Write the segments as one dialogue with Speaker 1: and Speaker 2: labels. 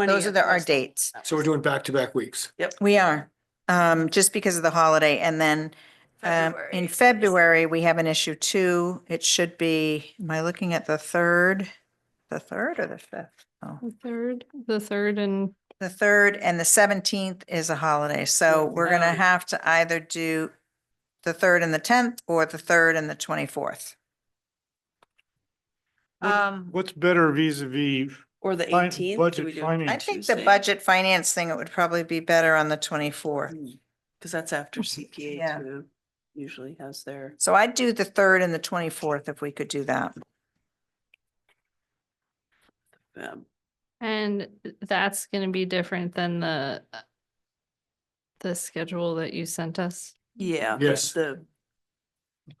Speaker 1: Those are the, our
Speaker 2: Twentieth was-
Speaker 1: dates.
Speaker 3: So we're doing back-to-back weeks.
Speaker 1: We are, um, just because of the holiday. And then, um, in
Speaker 2: is-
Speaker 1: February, we have an issue two. It should be, am I looking at the third? The third or the fifth? Oh,
Speaker 4: The third, the third and
Speaker 1: the third and the seventeenth is a holiday. So
Speaker 2: Oh,
Speaker 1: we're going to
Speaker 2: no.
Speaker 1: have to either do the third and the tenth or the third and the twenty-fourth.
Speaker 2: Um,
Speaker 5: What's better vis a vis
Speaker 2: or the eighteenth?
Speaker 5: budget
Speaker 1: I
Speaker 5: finance?
Speaker 1: think the
Speaker 2: Tuesday.
Speaker 1: budget finance thing, it would probably be better on the twenty-fourth.
Speaker 2: Hmm. Cause that's after
Speaker 1: Yeah.
Speaker 2: CPA too, usually has their.
Speaker 1: So I'd do the third and the twenty-fourth if we could do that.
Speaker 2: um,
Speaker 4: and that's gonna be different than the uh, the schedule that you sent us.
Speaker 2: Yeah. the-
Speaker 3: Yes.
Speaker 2: The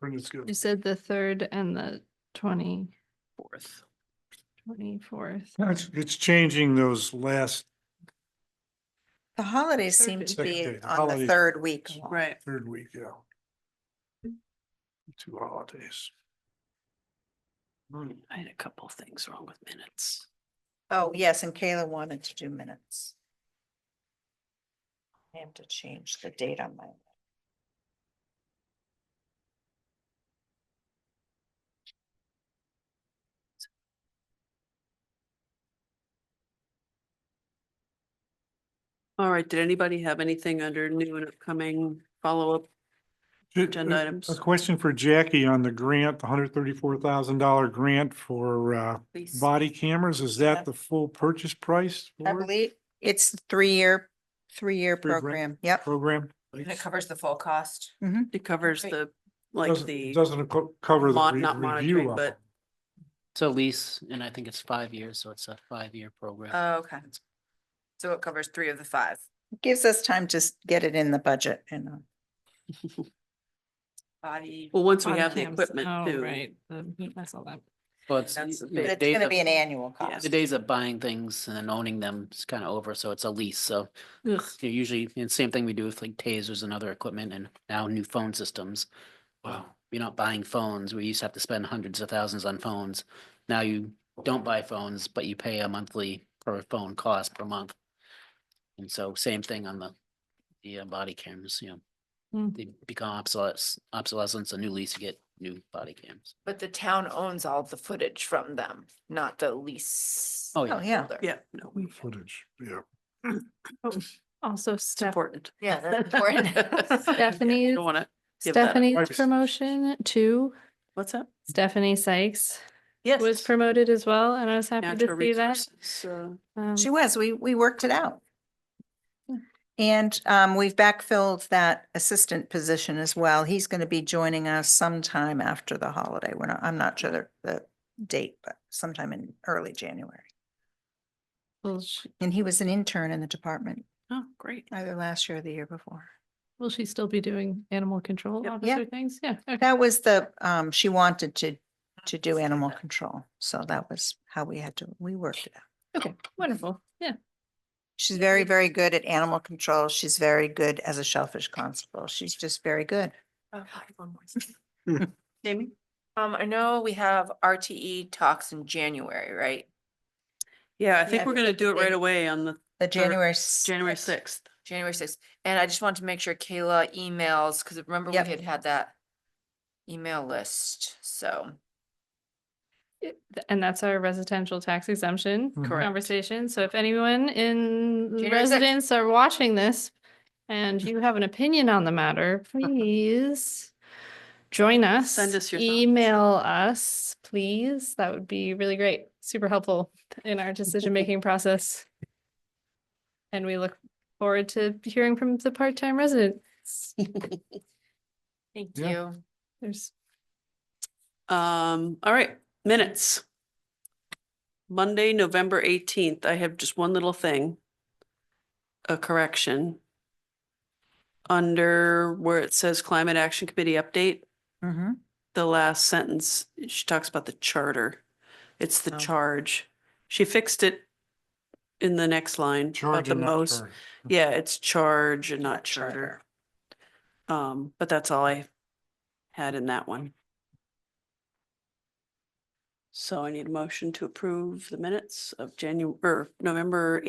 Speaker 3: Brendan's good.
Speaker 4: You said the third and the twenty
Speaker 2: fourth.
Speaker 4: twenty-fourth.
Speaker 5: It's it's changing those last
Speaker 1: The holidays
Speaker 4: Third
Speaker 1: seem
Speaker 4: is-
Speaker 1: to be
Speaker 3: Second day, the
Speaker 1: on the
Speaker 3: holidays.
Speaker 1: third week.
Speaker 2: Right.
Speaker 3: Third week, yeah. Two holidays.
Speaker 2: Mm, I had a couple things wrong with minutes.
Speaker 1: Oh, yes, and Kayla wanted to do minutes. I have to change the date on my.
Speaker 2: All right, did anybody have anything under new and upcoming follow-up?
Speaker 5: Ju-
Speaker 2: Agenda
Speaker 5: a-
Speaker 2: items.
Speaker 5: A question for Jackie on the grant, the hundred thirty-four thousand dollar grant for uh
Speaker 2: Please.
Speaker 5: body cameras. Is
Speaker 1: Yeah.
Speaker 5: that the full purchase price?
Speaker 1: I
Speaker 5: for it?
Speaker 1: believe it's three-year, three-year
Speaker 5: Three grand.
Speaker 1: program. Yep.
Speaker 5: Program?
Speaker 6: covers the full cost.
Speaker 2: It covers
Speaker 6: Great.
Speaker 2: the, like
Speaker 5: Doesn't-
Speaker 2: the,
Speaker 5: Doesn't co- cover the
Speaker 2: mon-
Speaker 5: re-
Speaker 2: not
Speaker 5: review
Speaker 2: monitoring,
Speaker 5: of
Speaker 2: but-
Speaker 5: it.
Speaker 7: So lease, and I think it's five years, so it's a five-year program.
Speaker 6: Oh, okay. So it covers three of the five.
Speaker 1: Gives us time to s- get it in the budget and. uh,
Speaker 6: Body.
Speaker 2: well, once we have the
Speaker 4: Webcams.
Speaker 2: equipment
Speaker 4: Oh,
Speaker 2: too.
Speaker 4: Right, the- I saw that.
Speaker 7: Well, it's,
Speaker 6: That's the
Speaker 7: you know,
Speaker 1: But
Speaker 7: the
Speaker 1: it's
Speaker 7: days
Speaker 1: gonna
Speaker 7: of-
Speaker 1: be an annual
Speaker 2: Yeah.
Speaker 1: cost.
Speaker 7: The days of buying things and then owning them is kind of over, so it's a lease, so
Speaker 2: Ugh.
Speaker 7: you're usually, and same thing we do with like tasers and other equipment and now new phone systems. Wow, you're not buying phones, we used to have to spend hundreds of thousands on phones. Now you don't buy phones, but you pay a monthly per phone cost per month. And so same thing on the, the uh, body cameras, you know.
Speaker 4: Mm.
Speaker 7: They become obsolescence, obsolescence, a new lease, you get new body cams.
Speaker 8: But the town owns all the footage from them, not the lease.
Speaker 7: Oh,
Speaker 1: Oh,
Speaker 7: yeah.
Speaker 1: yeah.
Speaker 8: holder.
Speaker 2: Yeah, no, we-
Speaker 3: Footage, yeah.
Speaker 4: Also
Speaker 2: it's
Speaker 4: Steph,
Speaker 2: important.
Speaker 8: Yeah, that's important.
Speaker 4: Stephanie's,
Speaker 2: Don't wanna, give that up.
Speaker 4: Stephanie's
Speaker 3: Privacy.
Speaker 4: promotion too.
Speaker 2: what's that?
Speaker 4: Stephanie Sykes
Speaker 2: Yes.
Speaker 4: was promoted as well, and I was happy
Speaker 2: Natural
Speaker 4: to see that.
Speaker 2: resources, uh,
Speaker 4: Um,
Speaker 1: She was, we, we worked it out. And um, we've backfilled that assistant position as well. He's going to be joining us sometime after the holiday. We're not, I'm not sure the, the date, but sometime in early January.
Speaker 4: Will she,
Speaker 1: And he was an intern in the department
Speaker 2: Oh, great.
Speaker 1: either last year or the year before.
Speaker 4: will she still be doing animal control
Speaker 2: Yep.
Speaker 1: Yeah.
Speaker 4: officer things? Yeah. okay.
Speaker 1: That was the, um, she wanted to, to do animal control. So that was how we had to, we worked it out.
Speaker 4: Okay, wonderful. Yeah.
Speaker 1: She's very, very good at animal control. She's very good as a shellfish constable. She's just very good.
Speaker 8: Oh, God, one more thing.
Speaker 2: Jamie?
Speaker 8: Um, I know we have RTE talks in January, right?
Speaker 2: Yeah, I
Speaker 1: Yeah,
Speaker 2: think we're gonna do it right
Speaker 8: think-
Speaker 2: away on the
Speaker 1: The
Speaker 2: Third-
Speaker 1: January.
Speaker 2: January sixth.
Speaker 8: January sixth. And I just wanted to make sure Kayla emails, because remember we
Speaker 1: Yep.
Speaker 8: had had that email list, so.
Speaker 4: It- th- And that's our residential tax exemption
Speaker 5: Mhm.
Speaker 2: Correct.
Speaker 4: conversation. So if anyone in
Speaker 8: January sixth.
Speaker 4: residence are watching this and you have an opinion on the matter, please join us.
Speaker 2: Send us your thoughts.
Speaker 4: Email us, please. That would be really great. Super helpful in our decision-making process. And we look forward to hearing from the part-time residents.
Speaker 8: Thank
Speaker 5: Yeah.
Speaker 8: you.
Speaker 4: There's
Speaker 2: Um, all right, minutes. Monday, November eighteenth, I have just one little thing. A correction. Under where it says Climate Action Committee update,
Speaker 1: Mm-hmm.
Speaker 2: the last sentence, she talks about the charter. It's the
Speaker 1: Oh.
Speaker 2: charge. She fixed it in the next line about
Speaker 5: Charge
Speaker 2: the
Speaker 5: and not
Speaker 2: most.
Speaker 5: charge.
Speaker 2: Yeah, it's charge and not charter. Um, but that's all I had in that one. So I need a motion to approve the minutes of January, or November